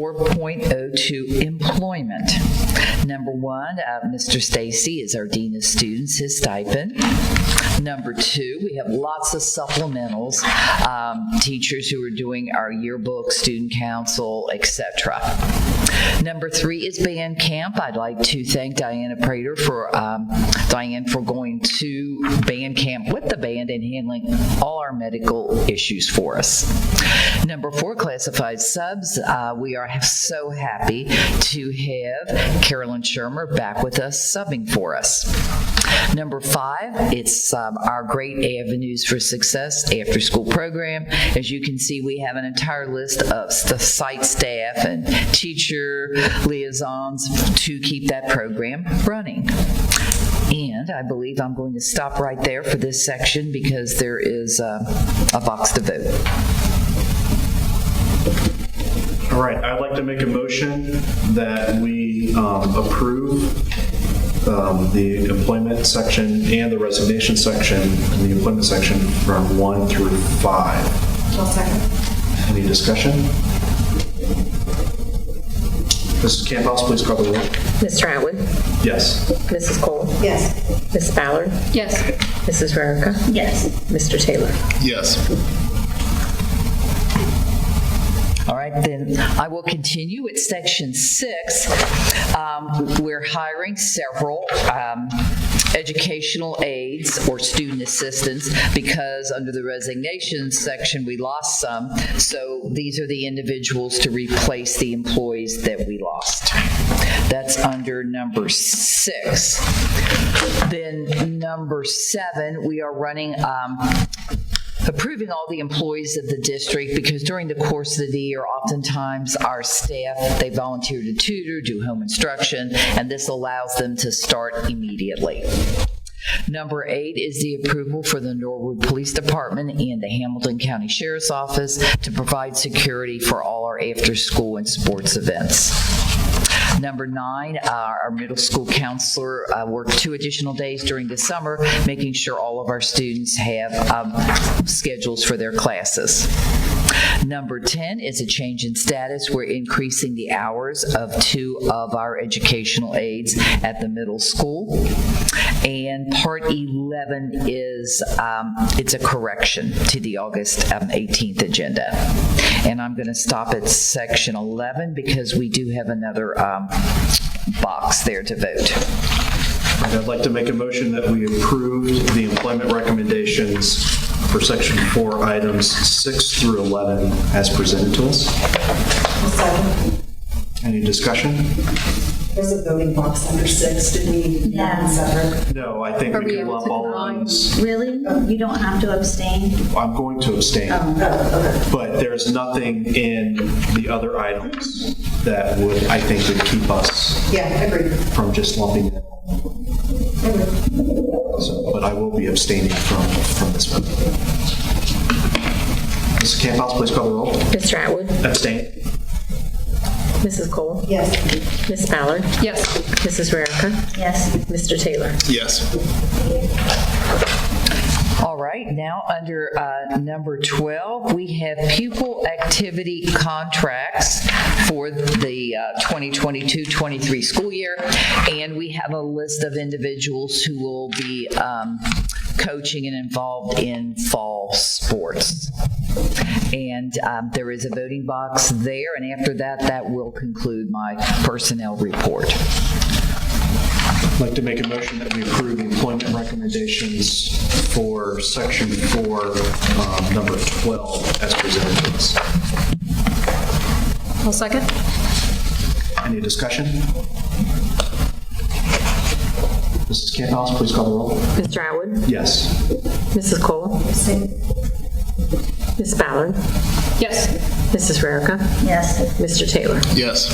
4.02 employment. Number one, uh, Mr. Stacy is our Dean of Students, his stipend. Number two, we have lots of supplementals, um, teachers who are doing our yearbook, student council, et cetera. Number three is band camp. I'd like to thank Diana Prater for, um, Diane for going to band camp with the band and handling all our medical issues for us. Number four, classified subs. Uh, We are so happy to have Carolyn Shermer back with us subbing for us. Number five, it's um, our great avenues for success after-school program. As you can see, we have an entire list of s- the site staff and teacher liaisons to keep that program running. And I believe I'm going to stop right there for this section because there is uh, a box to vote. All right, I'd like to make a motion that we um, approve um, the employment section and the resignation section, and the employment section from one through five. Any discussion? Mrs. Camp House, please call the roll. Mr. Atwood. Yes. Mrs. Cole. Yes. Ms. Ballard. Yes. Mrs. Rarica. Yes. Mr. Taylor. Yes. All right, then I will continue at section six. Um, We're hiring several um, educational aides or student assistants because under the resignation section, we lost some. So these are the individuals to replace the employees that we lost. That's under number six. Then number seven, we are running um, approving all the employees of the district because during the course of the year, oftentimes our staff, they volunteer to tutor, do home instruction, and this allows them to start immediately. Number eight is the approval for the Norwood Police Department and the Hamilton County Sheriff's Office to provide security for all our after-school and sports events. Number nine, uh, our middle school counselor uh, worked two additional days during the summer, making sure all of our students have um, schedules for their classes. Number 10 is a change in status. We're increasing the hours of two of our educational aides at the middle school. And part 11 is, um, it's a correction to the August um, 18th agenda. And I'm going to stop at section 11 because we do have another um, box there to vote. And I'd like to make a motion that we approve the employment recommendations for section four, items six through 11 as presented to us. Second. Any discussion? There's a voting box under six, did we have it separate? No, I think we can lump all of these. Really? You don't have to abstain? I'm going to abstain, Oh, but there's nothing in the other items that would, I think, would keep us okay. Yeah, agreed. from just lumping it. So, but I will be abstaining from, from this one. Mrs. Camp House, please call the roll. Mr. Atwood. Abstain. Mrs. Cole. Yes. Ms. Ballard. Yes. Mrs. Rarica. Yes. Mr. Taylor. Yes. All right, now under uh, number 12, we have pupil activity contracts for the uh, 2022-23 school year, and we have a list of individuals who will be um, coaching and involved in fall sports. And um, there is a voting box there, and after that, that will conclude my personnel report. I'd like to make a motion that we approve the employment recommendations for section four, um, number 12, as presented to us. I'll second. Any discussion? Mrs. Camp House, please call the roll. Mr. Atwood. Yes. Mrs. Cole. Ms. Ballard. Yes. Mrs. Rarica. Yes. Mr. Taylor. Yes.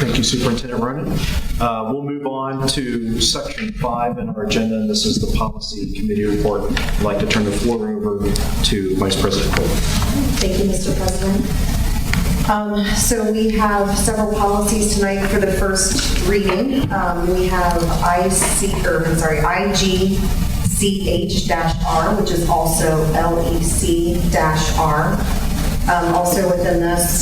Thank you, Superintendent Ronan. Uh, We'll move on to section five in our agenda, and this is the policy committee report. I'd like to turn the floor over to Vice President Cole. Thank you, Mr. President. Um, So we have several policies tonight for the first reading. Um, We have IC, or I'm sorry, E IGCH-R, which is also LEC-R. Um, Also within this,